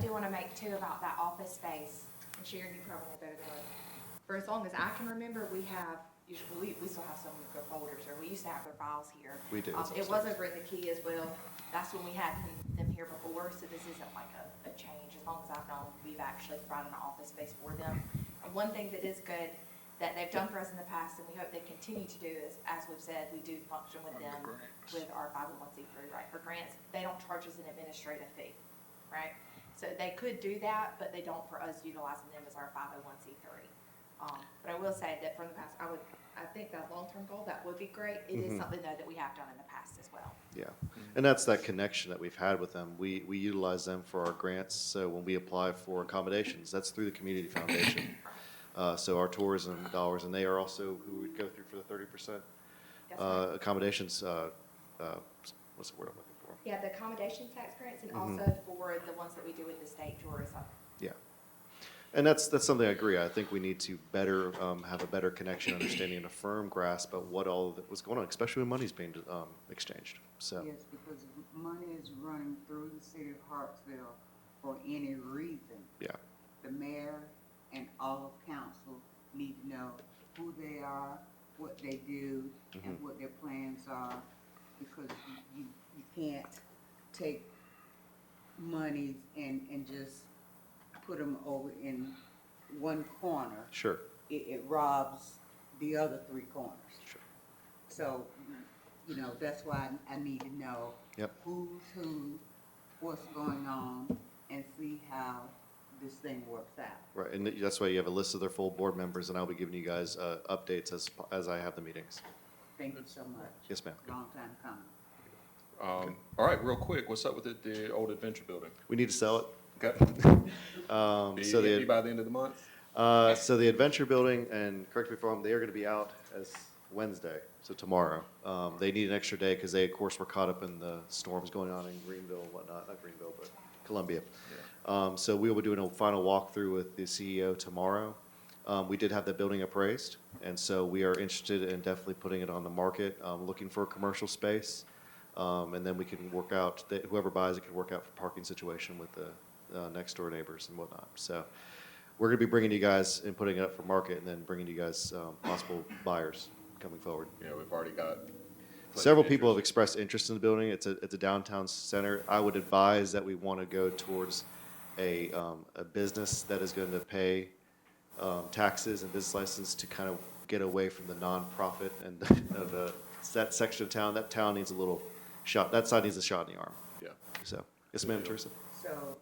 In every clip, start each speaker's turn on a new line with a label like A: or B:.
A: do wanna make too about that office space, and Sharon, you probably know better than us. For as long as I can remember, we have, usually, we, we still have some of their folders, or we used to have their files here.
B: We do,
A: Um,
B: it's
A: It was
B: upstairs.
A: over in the key as well, that's when we had them- them here before, so this isn't like a, a change, as long as I've known, we've actually provided an office space for them. And one thing that is good, that they've done for us in the past, and we hope they continue to do, is, as we've said, we do function with them with our five oh one C three, right, for grants, they don't charge us an administrative fee, right? So they could do that, but they don't for us utilizing them as our five oh one C three. Um, but I will say that from the past, I would, I think that long-term goal, that would be great, it is
B: Mhm.
A: something though that we have done in the past as well.
B: Yeah, and that's that connection that we've had with them. We, we utilize them for our grants, so when we apply for accommodations, that's through the community foundation. Uh, so our tourism dollars, and they are also who would go through for the thirty percent,
A: That's
B: uh,
A: right.
B: accommodations, uh, uh, what's the word I'm looking for?
A: Yeah, the accommodation tax grants and
B: Mhm.
A: also for the ones that we do with the state tourism.
B: Yeah. And that's, that's something I agree. I think we need to better, um, have a better connection, understanding, and a firm grasp of what all that was going on, especially when money's being, um, exchanged, so.
C: Yes, because money is running through the city of Hartsville for any reason.
B: Yeah,
C: The mayor and all of council need to know who they are, what they do, and what their plans are, because you, you, you can't take monies and, and just put them over in one corner.
B: sure,
C: It, it robs the other three corners.
B: sure.
C: So, you know, that's why I need to know.
B: Yep.
C: Who's who, what's going on, and see how this thing works out.
B: Right, and that's why you have a list of their full board members, and I'll be giving you guys uh, updates as, as I have the meetings.
C: Thank you so much.
B: Yes, ma'am.
C: Long time coming.
D: Um, all right, real quick, what's up with the, the old adventure building?
B: We need to sell it.
D: Okay,
B: Um,
D: be,
B: So
D: be
B: the,
D: by the end of the month?
B: uh, so the Adventure Building, and correct me if I'm wrong, they are going to be out as Wednesday, so tomorrow. Um, They need an extra day because they, of course, were caught up in the storms going on in Greenville and whatnot, not Greenville, but Columbia. Um, So we will be doing a final walkthrough with the CEO tomorrow. Um, We did have that building appraised, and so we are interested in definitely putting it on the market, um, looking for a commercial space. Um, and then we can work out, that whoever buys it can work out the parking situation with the uh, next door neighbors and whatnot. So we're going to be bringing you guys and putting it up for market and then bringing you guys um, possible buyers coming forward.
D: Yeah, we've already got. plenty of
B: Several people have
D: interest.
B: expressed interest in the building. It's a, it's a downtown center. I would advise that we want to go towards a, um, a business that is going to pay, um, taxes and business license to kind of get away from the nonprofit and the, of the, that section of town. That town needs a little shot, that side needs a shot in the arm.
D: Yeah,
B: So, yes, ma'am, Teresa.
C: So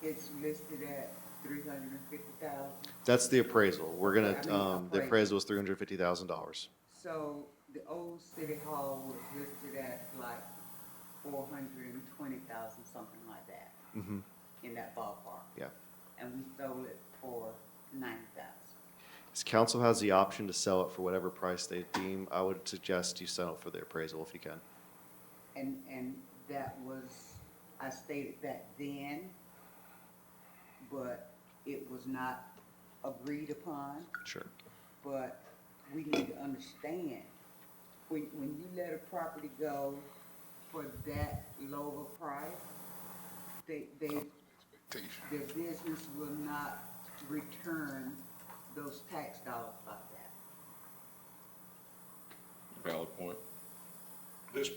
C: it's listed at three hundred and fifty thousand.
B: That's the appraisal. We're
C: I
B: gonna,
C: mean,
B: um, the
C: appraisal.
B: appraisal is three hundred fifty thousand dollars.
C: So the old city hall was listed at like four hundred and twenty thousand, something like that,
B: Mm-hmm,
C: in that ballpark.
B: yeah.
C: And we sold it for ninety thousand.
B: This council has the option to sell it for whatever price they deem. I would suggest you sell it for the appraisal if you can.
C: And, and that was, I stated that then, but it was not agreed upon,
B: Sure.
C: but we need to understand, when, when you let a property go for that low of a price, they, they, their business will not return those tax dollars like that.
D: valid point.
E: this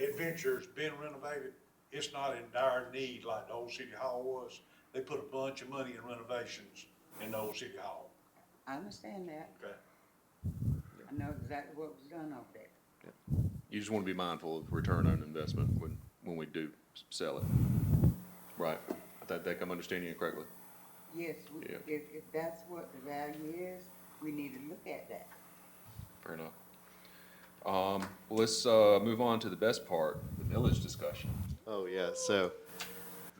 E: adventure's been renovated. It's not in dire need like the old city hall was. They put a bunch of money in renovations in the old city hall,
C: I understand that,
E: okay?
C: I know exactly what was done over there.
D: You just want to be mindful of return on investment when, when we do s- sell it. Right, I think- think I'm understanding you correctly.
C: Yes, we-
D: Yeah.
C: if, if that's what the value is, we need to look at that.
D: Fair enough. Um, well, let's, uh, move on to the best part, the village discussion.
B: Oh, yeah, so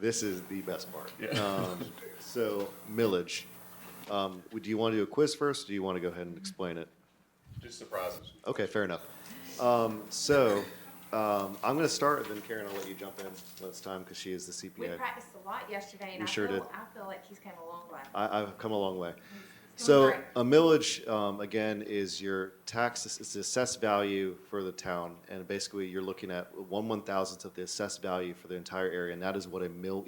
B: this is the best part.
D: Yeah.
B: Um, So millage, um, would- do you want to do a quiz first? Or do you want to go ahead and explain it?
D: Just surprises.
B: Okay, fair enough. Um, so, um, I'm going to start and then Karen, I'll let you jump in when it's time because she is the
A: We
B: CPA.
A: practiced a lot yesterday, and
B: We
A: I
B: sure
A: feel,
B: did.
A: I feel like he's came a long way.
B: I, I've come a long way.
A: Doing
B: So
A: great.
B: a millage, um, again, is your tax, it's the assessed value for the town. And basically you're looking at one one thousandth of the assessed value for the entire area. And that is what a mill